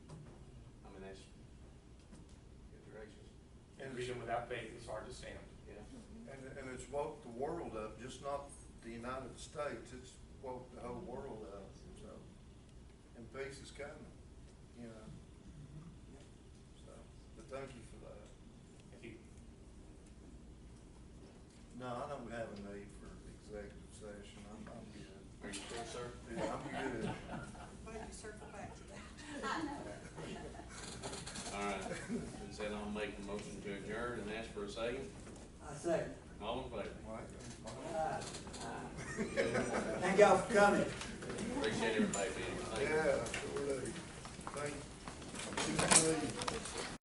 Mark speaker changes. Speaker 1: freedom without faith is hard to stand.
Speaker 2: And, and it's woke the world up, just not the United States, it's woke the whole world up, so. And peace is coming, you know, so, but thank you for that.
Speaker 1: If you,
Speaker 2: No, I don't have a need for executive session, I'm, I'm good.
Speaker 3: Are you sure, sir?
Speaker 2: Yeah, I'm good.
Speaker 4: Glad you circled back to that.
Speaker 3: All right, and said I'll make the motion to adjourn and ask for a second.
Speaker 5: I say,
Speaker 3: All in favor?
Speaker 2: Mike,
Speaker 5: uh,
Speaker 3: Good.
Speaker 5: thank y'all for coming.
Speaker 3: Appreciate everybody being here. Thank you.
Speaker 2: Yeah, sure do. Thank you.